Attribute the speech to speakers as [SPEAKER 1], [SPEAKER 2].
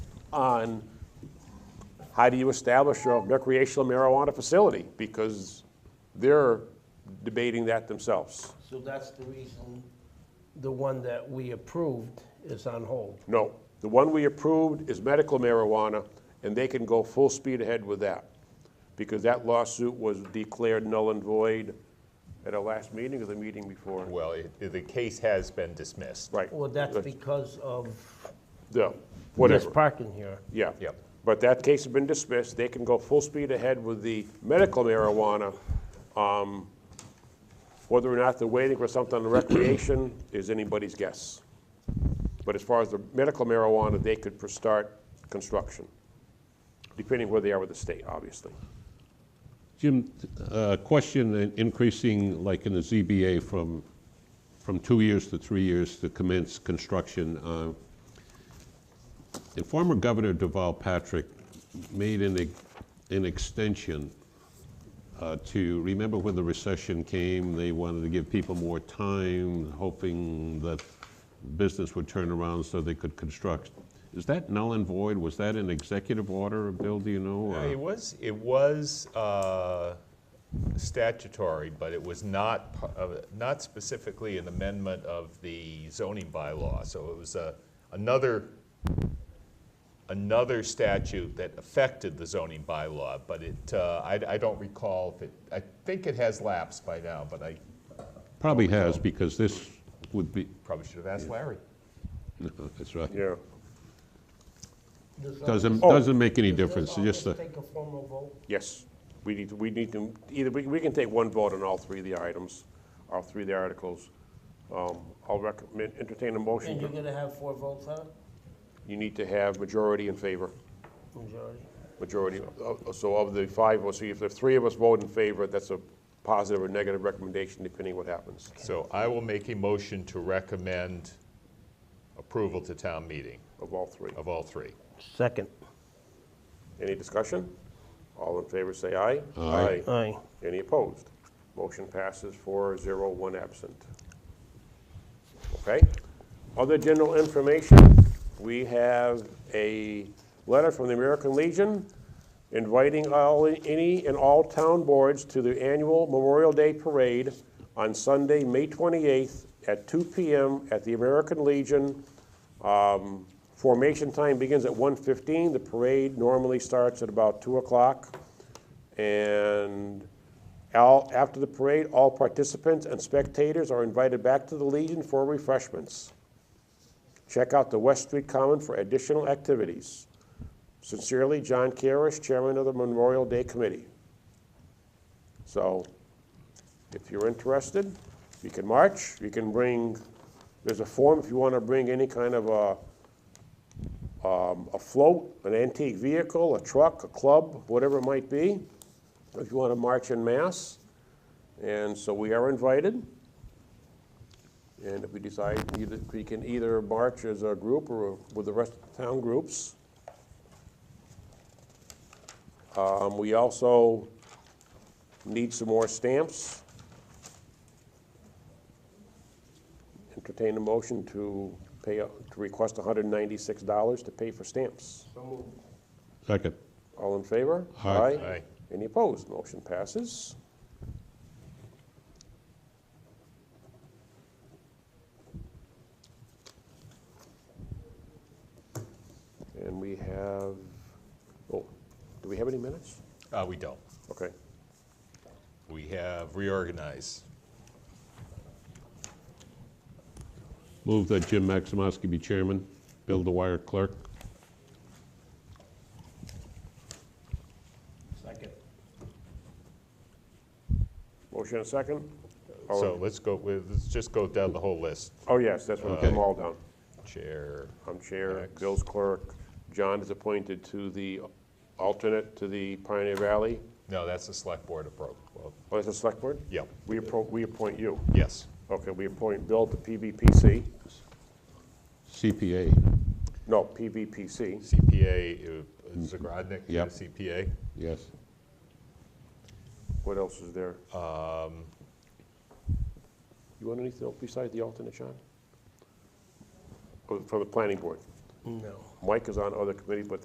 [SPEAKER 1] on how do you establish a recreational marijuana facility? Because they're debating that themselves.
[SPEAKER 2] So that's the reason the one that we approved is on hold.
[SPEAKER 1] No, the one we approved is medical marijuana, and they can go full speed ahead with that. Because that lawsuit was declared null and void at our last meeting or the meeting before.
[SPEAKER 3] Well, it- the case has been dismissed.
[SPEAKER 1] Right.
[SPEAKER 2] Well, that's because of
[SPEAKER 1] Yeah,
[SPEAKER 2] this
[SPEAKER 1] whatever,
[SPEAKER 2] parking here.
[SPEAKER 1] yeah.
[SPEAKER 3] Yep.
[SPEAKER 1] But that case has been dismissed, they can go full speed ahead with the medical marijuana. Um, Whether or not they're waiting for something on recreation is anybody's guess. But as far as the medical marijuana, they could pr- start construction, depending where they are with the state, obviously.
[SPEAKER 4] Jim, uh, question, in- increasing, like in the ZBA, from, from two years to three years to commence construction. uh, And former Governor Deval Patrick made an, ex- an extension uh, to, remember when the recession came, they wanted to give people more time, hoping that business would turn around so they could construct. Is that null and void? Was that an executive order, Bill, do you know?
[SPEAKER 3] Uh,
[SPEAKER 4] or-
[SPEAKER 3] It was, it was uh, statutory, but it was not, pa- uh, not specifically an amendment of the zoning bylaw. So it was a- another, another statute that affected the zoning bylaw, but it, uh, I I don't recall if it, I think it has lapsed by now, but I
[SPEAKER 4] Probably has, because this would be,
[SPEAKER 3] probably should have asked Larry.
[SPEAKER 4] that's right.
[SPEAKER 1] Yeah.
[SPEAKER 4] Doesn't,
[SPEAKER 1] Oh.
[SPEAKER 4] doesn't make any difference, just the,
[SPEAKER 2] Take a formal vote.
[SPEAKER 1] Yes, we need, to- we need to, either, we we can take one vote on all three of the items, all three of the articles. Um, I'll recommend, entertain a motion.
[SPEAKER 2] And
[SPEAKER 1] to-
[SPEAKER 2] you're gonna have four votes on it?
[SPEAKER 1] you need to have majority in favor,
[SPEAKER 2] Majority.
[SPEAKER 1] majority, uh, so of the five, of us, so if the three of us vote in favor, that's a positive or negative recommendation, depending what happens.
[SPEAKER 3] So I will make a motion to recommend approval to town meeting
[SPEAKER 1] Of all three.
[SPEAKER 3] of all three.
[SPEAKER 2] Second.
[SPEAKER 1] Any discussion? All in favor, say aye.
[SPEAKER 4] Aye.
[SPEAKER 2] Aye.
[SPEAKER 1] Any opposed? Motion passes four zero, one absent. Okay? Other general information, we have a letter from the American Legion inviting all, any and all town boards to the annual Memorial Day Parade on Sunday, May 28th at 2 PM at the American Legion. Um, Formation time begins at 1:15. The parade normally starts at about 2 o'clock. And all, after the parade, all participants and spectators are invited back to the Legion for refreshments. Check out the West Street Common for additional activities. Sincerely, John Carish, Chairman of the Memorial Day Committee. So, if you're interested, you can march, you can bring, there's a form if you want to bring any kind of uh, a, um, a float, an antique vehicle, a truck, a club, whatever it might be, if you want to march in mass. And so we are invited. And if we decide, either- we can either march as a group or with the rest of the town groups. Um, We also need some more stamps. Entertain a motion to pay, to request $196 to pay for stamps.
[SPEAKER 4] second,
[SPEAKER 1] All in favor?
[SPEAKER 4] Aye.
[SPEAKER 3] Aye.
[SPEAKER 1] Any opposed? Motion passes. And we have, oh, do we have any minutes?
[SPEAKER 3] Uh, we don't.
[SPEAKER 1] Okay.
[SPEAKER 3] We have reorganized.
[SPEAKER 4] move that Jim Maximowski be chairman, Bill Dwyer clerk.
[SPEAKER 2] Second.
[SPEAKER 1] Motion and second? All
[SPEAKER 3] So
[SPEAKER 1] in-
[SPEAKER 3] let's go with, let's just go down the whole list.
[SPEAKER 1] Oh, yes, that's what I'm
[SPEAKER 4] Okay.
[SPEAKER 1] all down.
[SPEAKER 3] Chair,
[SPEAKER 1] I'm chair,
[SPEAKER 3] Next.
[SPEAKER 1] Bill's clerk. John is appointed to the alternate to the Pioneer Valley.
[SPEAKER 3] no, that's the select board appro, well,
[SPEAKER 1] Oh, is it select board?
[SPEAKER 3] yeah,
[SPEAKER 1] We appro, we appoint you.
[SPEAKER 3] yes.
[SPEAKER 1] Okay, we appoint Bill to PVPC,
[SPEAKER 4] CPA,
[SPEAKER 1] no, PVPC,
[SPEAKER 3] CPA, uh, Zagrodnik,
[SPEAKER 4] Yep.
[SPEAKER 3] CPA.
[SPEAKER 4] yes.
[SPEAKER 1] what else is there? You want anything else besides the alternate, John? Oh, From the planning board,
[SPEAKER 2] No.
[SPEAKER 1] Mike is on other committees, but